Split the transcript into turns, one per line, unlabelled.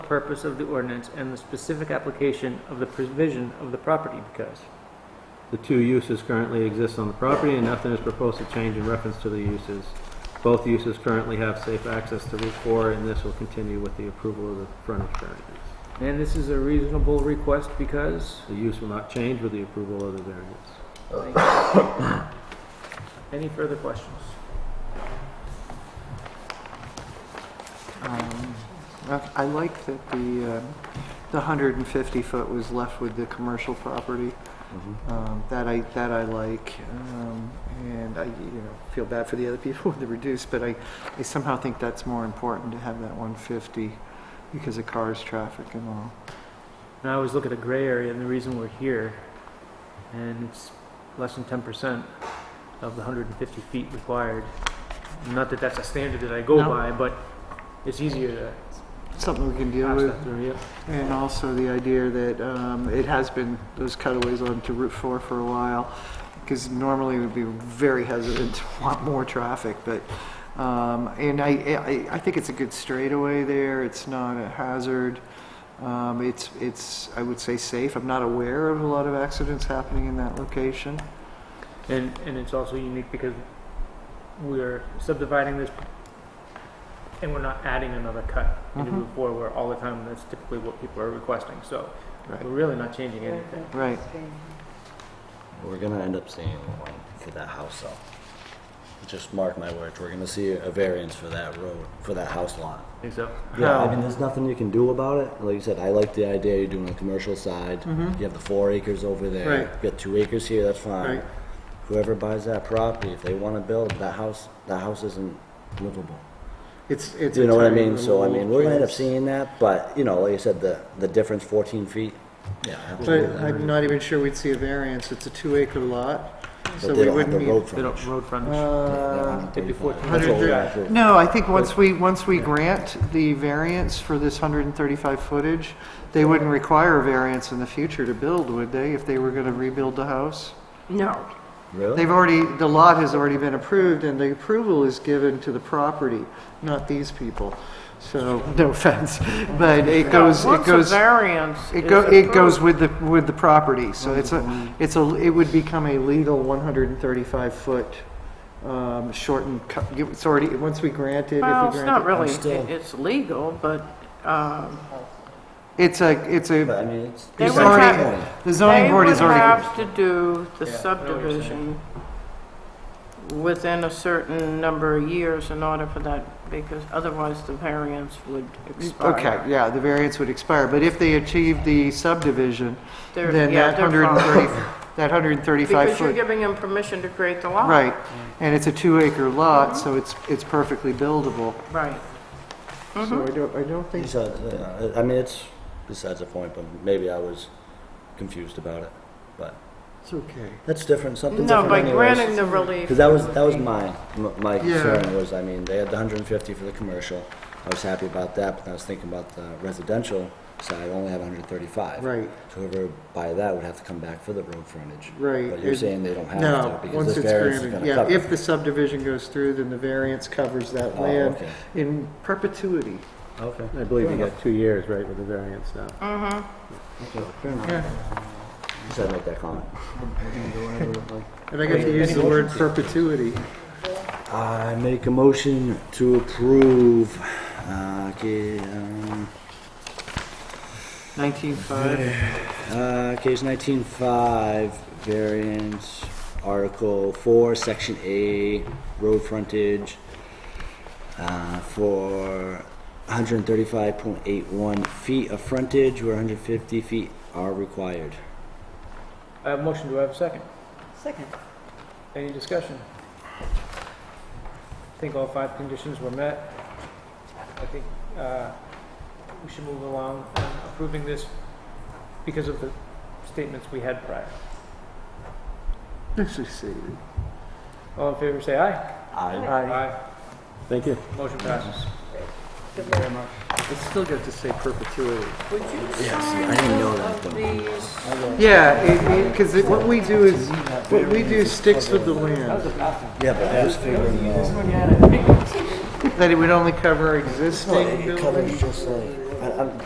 purpose of the ordinance and the specific application of the provision of the property because.
The two uses currently exist on the property and nothing is proposed to change in reference to the uses. Both uses currently have safe access to Route 4 and this will continue with the approval of the frontage variance.
And this is a reasonable request because,
The use will not change with the approval of the variance.
any further questions?
Um, I I like that the, um, the 150 foot was left with the commercial property. Um, That I, that I like. Um, And I, you know, feel bad for the other people with the reduced, but I, I somehow think that's more important to have that 150 because of cars, traffic and all.
And I always look at a gray area and the reason we're here, and it's less than ten percent of the hundred and fifty feet required. Not that that's a standard that I go
No.
by, but it's easier to
Something we can deal
pass
with.
that through, yeah.
And also the idea that um, it has been those cutaways onto Route 4 for a while, because normally we'd be very hesitant to want more traffic, but, um, and I, I, I think it's a good straightaway there, it's not a hazard. Um, It's, it's, I would say safe, I'm not aware of a lot of accidents happening in that location.
And, and it's also unique because we're subdividing this and we're not adding another cut into
Mhm.
Route 4 where all the time that's typically what people are requesting. So
Right.
we're really not changing anything.
Right.
We're gonna end up seeing one for that house though. Just mark my words, we're gonna see a variance for that road, for that house lot.
I think so.
Yeah, I mean, there's nothing you can do about it. Like you said, I like the idea you're doing a commercial side.
Mm-hmm.
You have the four acres over there.
Hmm. Right.
You got two acres here, that's fine.
Right.
Whoever buys that property, if they wanna build, that house, that house isn't livable.
It's, it's.
You know what I
entirely
mean? So, I mean, we're gonna end up
removable.
seeing that, but, you know, like you said, the, the difference fourteen feet. Yeah.
But
absolutely.
I'm not even sure we'd see a variance, it's a two acre lot, so we
But they don't have
wouldn't
the
need.
road
They don't,
frontage.
road frontage.
Uh,
it'd be 14.
That's what
130.
we got to-
No, I think once we, once we grant the variance for this 135 footage, they wouldn't require a variance in the future to build, would they, if they were going to rebuild the house?
No.
Really?
They've already, the lot has already been approved, and the approval is given to the property, not these people. So, no offense, but it goes, it
Once a
goes,
variance
it
is
go, it
approved- Mm-hmm.
goes with the, with the property. So it's a, it's a, it would become a legal 135-foot um, shortened, cut- it's already, once we grant it, if we
Well,
grant
it's
it.
not really,
still-
it's legal, but um,
It's a, it's
But I
a,
mean, it's.
They
it's
would
already-
have-
the zoning
they
board
would
is already,
have to do the
Yeah, I know what you're
subdivision within a certain number of years in order for that, because otherwise the variance would expire.
okay, yeah, the variance would expire, but if they achieve the subdivision,
They're-
then
yeah,
that
they're
hundred and
fine.
thirty, that hundred and thirty-five
Because you're
foot,
giving them permission to create the lot.
right,
Mm-hmm.
and it's a two-acre lot, so it's, it's perfectly buildable.
Right. Mm-hmm.
So I don't, I don't think,
Besides, uh, I mean, it's besides the point, but maybe I was confused about it. But
it's okay.
that's different, something
No,
different
by granting
anyways.
the relief.
Because that was, that was my, m- my
Yeah.
concern was, I mean, they had the hundred and fifty for the commercial. I was happy about that, but I was thinking about the residential side, only have hundred and thirty-five.
Right.
So whoever buy that would have to come back for the road frontage.
Right,
But you're
it-
saying they don't have
No,
to, because
once
this
it's
variance is
granted,
gonna
yeah,
cover.
if the subdivision goes through, then the variance covers that
Oh,
land
okay.
in perpetuity.
Okay.
I believe you got two years, right, with the variance now.
Just had to make that comment.
And I got to use the word perpetuity.
I make a motion to approve, uh, ca- um,
Nineteen five.
uh, case nineteen five, variance, article four, section A, road frontage, uh, for hundred and thirty-five point eight one feet of frontage, where hundred fifty feet are required.
I have a motion, do I have a second?
Second.
Any discussion? I think all five conditions were met. I think uh, we should move along on approving this because of the statements we had prior.
This is saved.
All in favor, say aye.
I,
Aye.
Thank you.
Motion passes.
It's still got to say perpetuity.
Would you
I didn't know that. though.
these?
Yeah, because what we do is, what we do sticks with the land.
Yeah, but I was figuring, uh,
That it would only cover existing buildings.
I, I'm,